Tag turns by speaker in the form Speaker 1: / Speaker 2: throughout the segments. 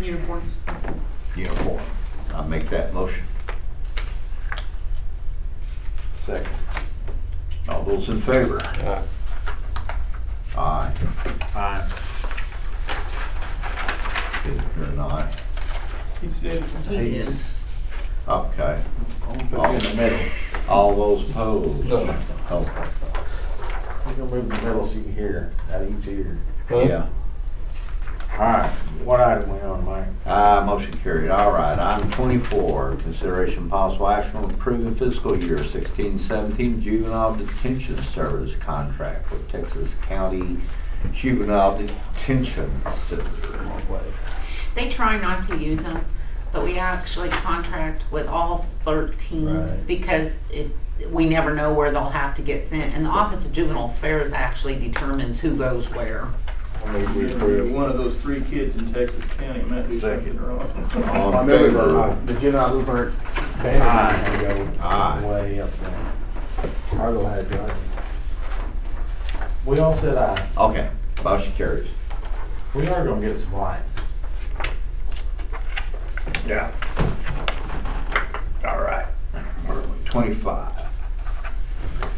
Speaker 1: Uniforms.
Speaker 2: uniform. I make that motion.
Speaker 3: Second.
Speaker 2: All those in favor? Aye.
Speaker 3: Aye.
Speaker 2: Bittner and aye.
Speaker 3: He said.
Speaker 1: He did.
Speaker 2: Okay.
Speaker 3: I'm gonna put you in the middle.
Speaker 2: All those opposed?
Speaker 3: No.
Speaker 2: Oh,
Speaker 3: I'm gonna move in the middle so you can hear, out of each ear.
Speaker 2: Yeah.
Speaker 3: All right, what item we on, Mike?
Speaker 2: Aye, motion carried. All right, item twenty-four, consideration possible action on approving fiscal year sixteen seventeen juvenile detention service contract with Texas County Juvenile Detention Center.
Speaker 1: They try not to use them, but we actually contract with all thirteen
Speaker 2: Right.
Speaker 1: because it, we never know where they'll have to get sent. And the Office of Juvenile Affairs actually determines who goes where.
Speaker 3: I move we
Speaker 4: You're
Speaker 3: approve.
Speaker 4: One of those three kids in Texas County, I might be
Speaker 3: Second.
Speaker 4: something wrong.
Speaker 2: All in
Speaker 5: Remember,
Speaker 2: favor?
Speaker 5: the General Lubert
Speaker 3: Aye.
Speaker 5: banner had to
Speaker 2: Aye.
Speaker 5: go way up there. Argo had to, right? We all said aye.
Speaker 2: Okay, motion carries.
Speaker 5: We are gonna get some lights.
Speaker 3: Yeah.
Speaker 2: All right. Where are we? Twenty-five.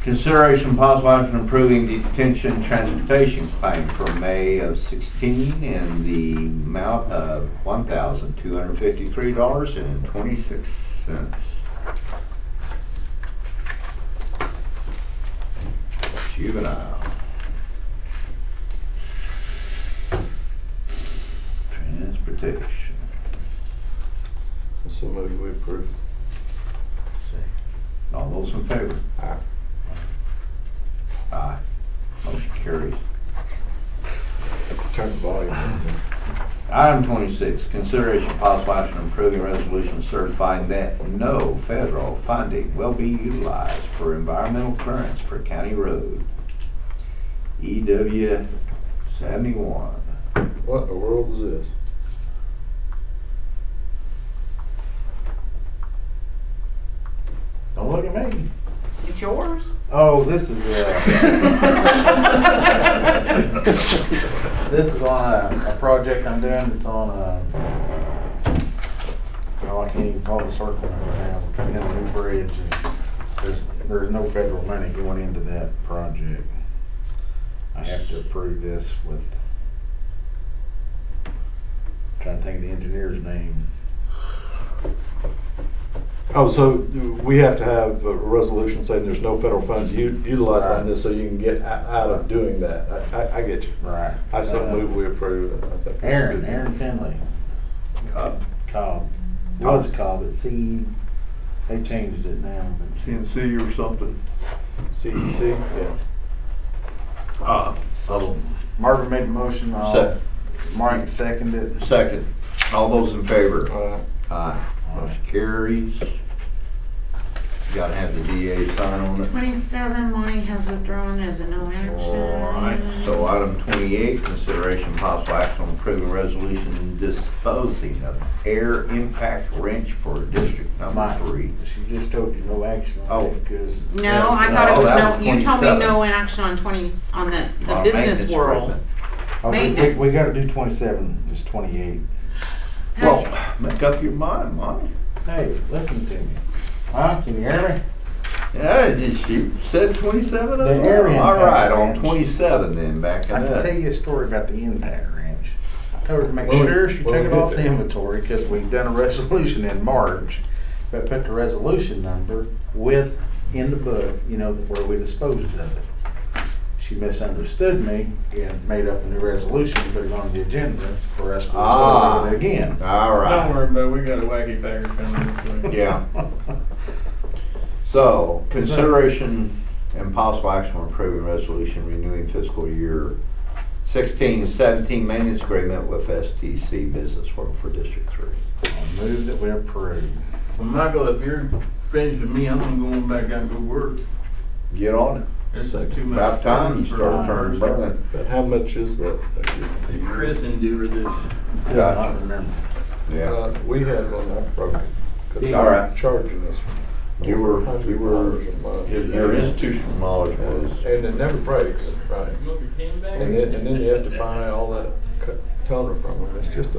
Speaker 2: Consideration possible action approving detention transportation claim for May of sixteen in the amount of one thousand two hundred fifty-three dollars and twenty-six cents. Juvenile. Transportation.
Speaker 3: So move we approve.
Speaker 2: All those in favor?
Speaker 3: Aye.
Speaker 2: Aye. Motion carries.
Speaker 3: Turn the volume. down.
Speaker 2: Item twenty-six, consideration possible action on approving resolution certifying that no federal funding will be utilized for environmental clearance for county road. EW seventy-one.
Speaker 3: What in the world is this?
Speaker 5: Don't look at me.
Speaker 1: It's yours?
Speaker 5: Oh, this is, uh. This is on a, a project I'm doing, it's on a, oh, I can't even call the circle right now, we're coming down a new bridge. and There's, there's no federal money going into that project. I have to approve this with, trying to think of the engineer's name.
Speaker 6: Oh, so we have to have a resolution saying there's no federal funds u- utilized on this, so you can get o- out of doing that. I- I, I get you.
Speaker 5: Right.
Speaker 6: I so move we approve. it. I think that's a good
Speaker 5: Aaron,
Speaker 6: deal.
Speaker 5: Aaron Finley.
Speaker 2: Cobb.
Speaker 5: Cobb. Was Cobb, at C, they changed it now, but.
Speaker 2: CNC or something. eh?
Speaker 6: CEC, E yeah.
Speaker 2: Uh, so-
Speaker 5: Marvin made the motion, uh,
Speaker 2: Second.
Speaker 5: Mike seconded it.
Speaker 2: Second. All those in favor?
Speaker 6: Uh,
Speaker 2: Aye. Motion carries. Gotta have the DA sign on it.
Speaker 1: Twenty-seven, Monty has withdrawn as a no action.
Speaker 2: Alright, so item twenty-eight, consideration possible action on approving resolution disposing of air impact wrench for district number
Speaker 5: Mike.
Speaker 2: three.
Speaker 5: She just told you no action on
Speaker 2: Oh.
Speaker 5: it because
Speaker 1: No, I
Speaker 2: No,
Speaker 1: thought it was
Speaker 2: Oh, that
Speaker 1: no,
Speaker 2: was
Speaker 1: you told me
Speaker 2: 27.
Speaker 1: no action on twenty, on the, the
Speaker 2: Our
Speaker 1: business
Speaker 2: maintenance
Speaker 1: world.
Speaker 2: agreement.
Speaker 5: Oh, we- we,
Speaker 1: Maintenance.
Speaker 5: we gotta do twenty-seven, it's twenty-eight.
Speaker 2: Well, make up your mind, Monty.
Speaker 5: Hey, listen to me. Huh, can you hear me?
Speaker 2: Yeah, just you said twenty-seven?
Speaker 5: The air impact
Speaker 2: Alright, on
Speaker 5: wrench.
Speaker 2: twenty-seven then, back it
Speaker 5: I can
Speaker 2: up.
Speaker 5: tell you a story about the impact wrench. I told her to make
Speaker 6: Well,
Speaker 5: sure she took
Speaker 6: well,
Speaker 5: it
Speaker 6: good
Speaker 5: off the
Speaker 6: there.
Speaker 5: inventory because we've done a resolution in March, but put the resolution number with, in the book, you know, where we disposed of it. She misunderstood me and made up a new resolution, put it on the agenda for us to dispose
Speaker 2: Ah.
Speaker 5: of it again.
Speaker 4: Don't
Speaker 2: Alright,
Speaker 4: worry about it, we got a wacky bagger coming this way.
Speaker 2: yeah. So, consideration and possible action on approving resolution renewing fiscal year sixteen seventeen maintenance agreement with STC Business World for District Three.
Speaker 5: I Move that we approve.
Speaker 4: Well, Michael, if you're finished with me, I'm gonna go back out and go work.
Speaker 2: Get on it.
Speaker 4: There's
Speaker 6: Second.
Speaker 4: too much
Speaker 2: About time you
Speaker 4: for
Speaker 2: start
Speaker 4: one
Speaker 2: turning
Speaker 4: person.
Speaker 2: burning.
Speaker 6: But how much is that?
Speaker 4: Chris endured this.
Speaker 5: I don't remember.
Speaker 2: Yeah.
Speaker 6: Uh, We had one that broke.
Speaker 2: It's all right.
Speaker 6: Charging us.
Speaker 2: You were- you were-
Speaker 6: $100 a month.
Speaker 2: Your institutional knowledge was,
Speaker 6: And it never breaks, right?
Speaker 4: You want your pen back?
Speaker 6: And then, and then you have to buy all that co- toner from them. It's just a